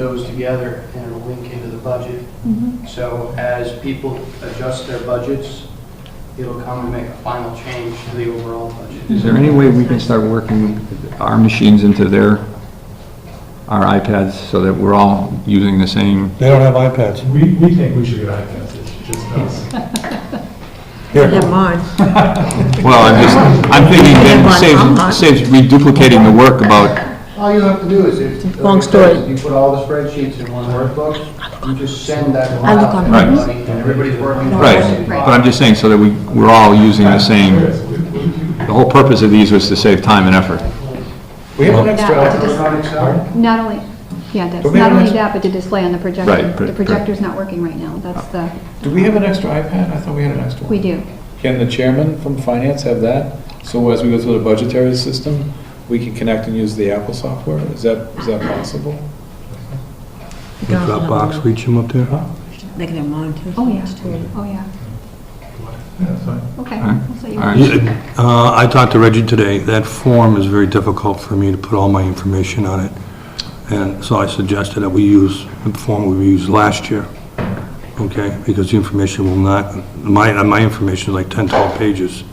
those together and it'll link into the budget. Mm-hmm. Mhm. So as people adjust their budgets, it'll come and make a final change to the overall budget. Is there any way we can start working our machines into their, our iPads, so that we're all using the same? They don't have iPads. We, we think we should get iPads, it's just us. Here, mine. Well, I'm just, I'm thinking that it saves, saves reduplicating the work about, All you have to do is if. Long like I said, story. You put all the spreadsheets in one workbook, you just send that one I look out on to Right. everybody and everybody's working. on the right, same but I'm just saying, so that we, we're all using the same, the whole purpose of these was to save time and effort. we have an file. extra, Work on Excel? Not only, yeah, that's, Don't we not have only an ex- that, but the display on the Right, projector. pr- The pr- projector's not working right now, that's the, do we have an extra iPad? I thought we had an extra one. we do. Can the chairman from finance have that? So as we go through the budgetary system, we can connect and use the Apple software? Is that, is that possible? Dropbox, reach them up there? They can have mine too. Oh, yeah, oh, yeah. That's fine. Okay. All right. I'll set you All up. right. Uh, I talked to Reggie today. That form is very difficult for me to put all my information on it. And so I suggested that we use the form we used last year, okay? Because the information will not, my, my information is like 10, 12 pages.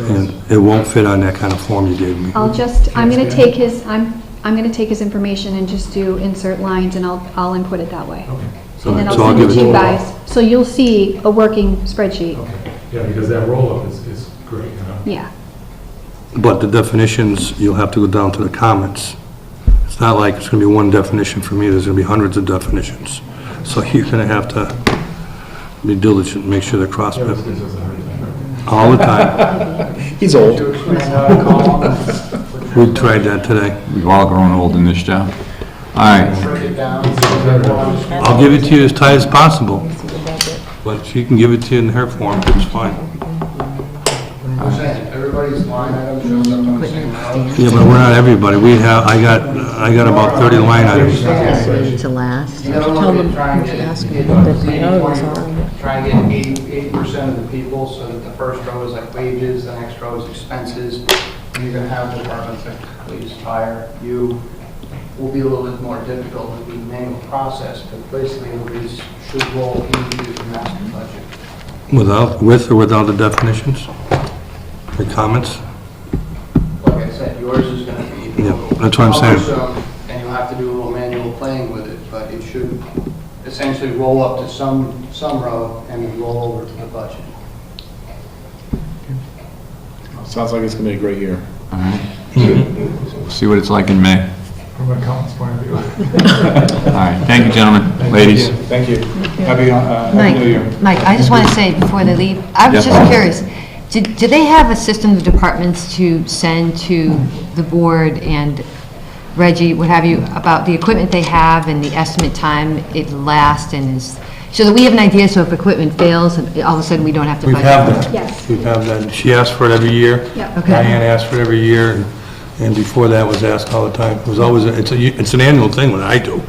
And it won't fit on that kind of form you gave me. I'll just, I'm gonna take his, I'm, I'm gonna take his information and just do insert lines and I'll, I'll input it that way. Oh, And then I'll So I'll send it give to you it- guys, so you'll see a working Oh. spreadsheet, Okay, yeah, because that roll-up is, is great, you know? yeah. But the definitions, you'll have to go down to the comments. It's not like it's going to be one definition for me, there's going to be hundreds of definitions. So you're going to have to be diligent, make sure they're cross, That was- this was a hard time. all the time. He's old. To explain how to call them. We tried that today. We've all grown old in this job. All right, Break it down. so that everyone understands. I'll give it to you as tight as possible, but she can give it to you in her form, it's fine. I'm saying, everybody's line item shows up on the same row. Yeah, but we're not everybody, we have, I got, I got about 30 line items. To last. You gotta Tell look at them, trying to get, ask get them that they know it's 80/20, try and get eighty, eighty percent of the people, so that the first row is like wages, the next row is expenses. And you're gonna have departments like police, fire, you, will be a little bit more difficult with the manual process, but basically everybody's should roll into the master budget. Without, with or without the definitions? The comments? Like I said, yours is gonna be. Yeah, that's what I'm saying. cumbersome, And you'll have to do a little manual playing with it, but it should essentially roll up to some, some row and then roll over to the budget. Sounds like it's gonna be a great year. all right. We'll See what it's like in May. From a comments point of view. All right, thank you, gentlemen, ladies. Thank you. Happy, uh, Happy New Year. Mike, Mike, I just want to say before they leave, I was Yeah. just curious, do do they have a system of departments to send to the board and Reggie, what have you, about the equipment they have and the estimate time it lasts and is, so that we have an idea, so if equipment fails, and all of a sudden we don't have to We budget? have that. Yes. We have that, she asked for it every year. Yeah. Okay. Diane asked for it every year, and- and before that was asked all the time. It was always, a- it's a, it's an annual thing when I do.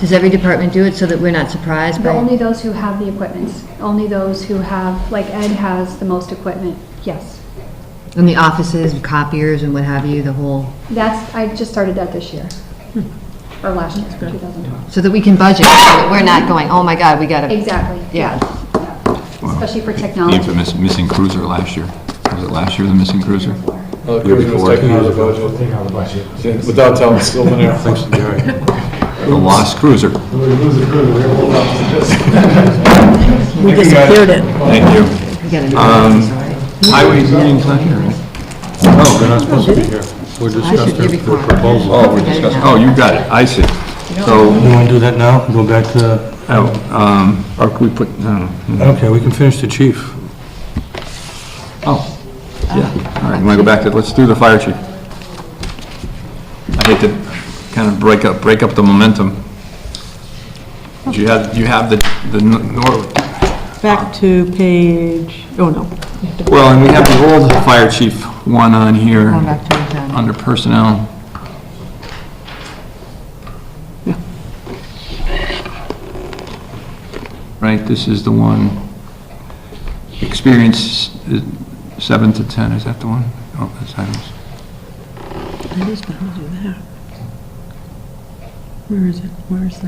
Does every department do it so that we're not surprised But by? only those who have the equipment, only those who have, like Ed has the most equipment, yes. In the offices, and copiers and what have you, the whole, That's, I just started that this year, or last year, 2012. so that we can budget, so that we're not going, oh my God, we got to. Exactly. Yeah. Especially for The technology. infamous missing cruiser last year. Was it last year, the missing cruiser? Well, Year Christmas before. taken out of But the we'll take out the budget. budget. Without telling Sylvan Air. Thanks to Gary. The lost cruiser. We lose the crew, we're rolled up to this. We disappeared it. Thank you. We gotta do it, Um, sorry. Highway meeting's not here, right? No, they're not supposed to be here. Oh, I We're should be discussing the recorded. proposal. Oh, we're discussing, oh, you got it, I see. So, You want to do that now? Go back to, oh, um, or could we put, no, no. okay, we can finish the chief. oh, yeah. All right, you want to go back to, let's do the fire chief. I hate to kind of break up, break up the momentum. But You have, you have the, the, nor- Back to page, oh no. well, and we have the old fire chief one on here. Going back to the- under personnel. Right, this is the one, experience uh, seven to 10, is that the one? Oh, that's items. That is behind you there. Where is it? Where is that?